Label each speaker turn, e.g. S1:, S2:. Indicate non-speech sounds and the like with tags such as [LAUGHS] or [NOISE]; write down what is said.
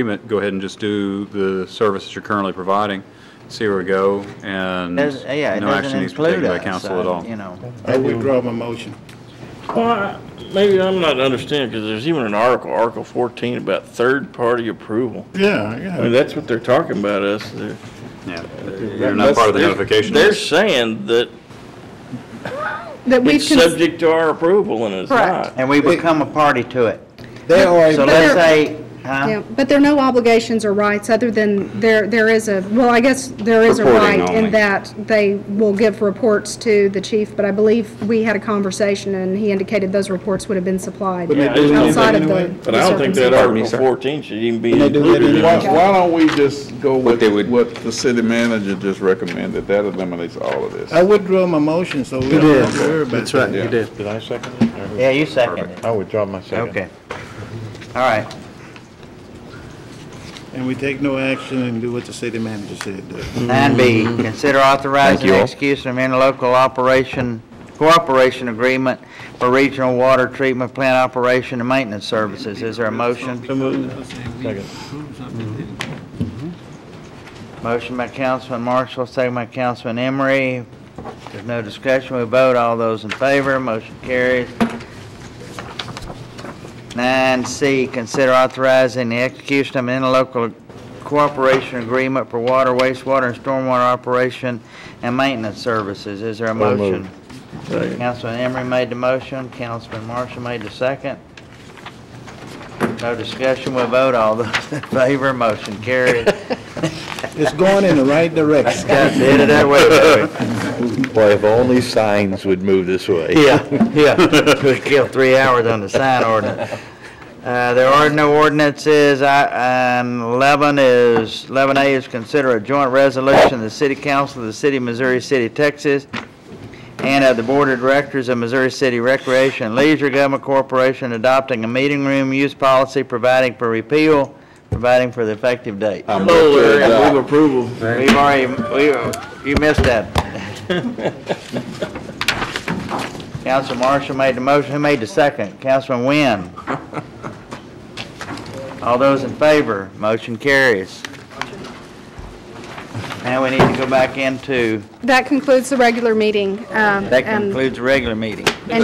S1: agreement, go ahead and just do the services you're currently providing, see where we go, and no
S2: Does- uh, Yeah, it doesn't
S1: action needs to be
S2: include
S1: taken by council at all.
S2: outside, you know.
S3: I withdraw my motion.
S4: Well, I- maybe I'm not understanding, because there's even an article, Article 14, about third-party approval.
S3: Yeah,
S4: I mean,
S3: yeah.
S4: that's what they're talking about us. They're-
S1: Yeah, You're not part of the
S4: they're-
S1: notification.
S4: They're
S1: list.
S4: saying that
S5: That we've,
S4: it's
S5: cons-
S4: subject to our approval, and it's
S5: Correct.
S4: not.
S2: And we become a party to it.
S3: They are,
S2: So
S3: a-
S2: let's
S5: there-
S2: say, huh?
S5: yeah, but there are no obligations or rights other than there, there is a, well, I guess there is a
S1: Reporting
S5: right
S1: only.
S5: in that they will give reports to the chief, but I believe we had a conversation and he indicated those reports would have been supplied
S3: But they do that
S5: outside of
S3: anyway?
S5: the.
S4: But I don't think that Article 14 should even be
S3: they do that
S4: included in
S3: anyway.
S4: it.
S6: Why why don't we just go with
S7: they would-
S6: what the city manager just recommended? That eliminates all of this.
S3: I withdraw my motion, so we don't have to worry about
S8: That's right,
S3: that.
S6: Yeah.
S8: you did.
S9: Did I second it?
S2: Yeah, you second it.
S9: I withdraw my second.
S2: Okay. All right.
S3: And we take no action and do what the city manager said. uh,
S2: Nine B, consider authorizing
S7: Mm-hmm. you all.
S2: execution of interlocal operation, cooperation agreement for regional water treatment plant operation and maintenance services. Is there a motion?
S3: so moved.
S2: Mm-hmm. Motion by Councilman Marshall, second by Councilman Emery. There's no discussion, we vote, all those in favor, motion carries. Nine C, consider authorizing the execution of an interlocal cooperation agreement for water, wastewater, and stormwater operation and maintenance services. Is there a motion? Councilman Emery made the motion, Councilman Marshall made the second. No discussion, we vote, all those [LAUGHS] in favor, motion carries.
S3: It's going in the right direction.
S2: Got to end it that way, Joey.
S8: Boy, if only signs would move this
S6: [LAUGHS]
S8: way.
S2: Yeah, yeah. We killed three hours on the sign ordinance. Uh, There are no ordinances. I- um, 11 is, 11A is consider a joint resolution of the City Council of the City of Missouri City, Texas, and of the Board of Directors of Missouri City Recreation and Leisure Government Corporation adopting a meeting room use policy providing for repeal, providing for the effective date.
S6: I move to adopt.
S4: approval.
S2: We've already, we, you missed that. Council Marshall made the motion, who made the second? Councilman Wynn. All those in favor, motion carries. Now we need to go back into,
S5: That concludes the regular meeting. um,
S2: that
S5: and-
S2: concludes the regular meeting.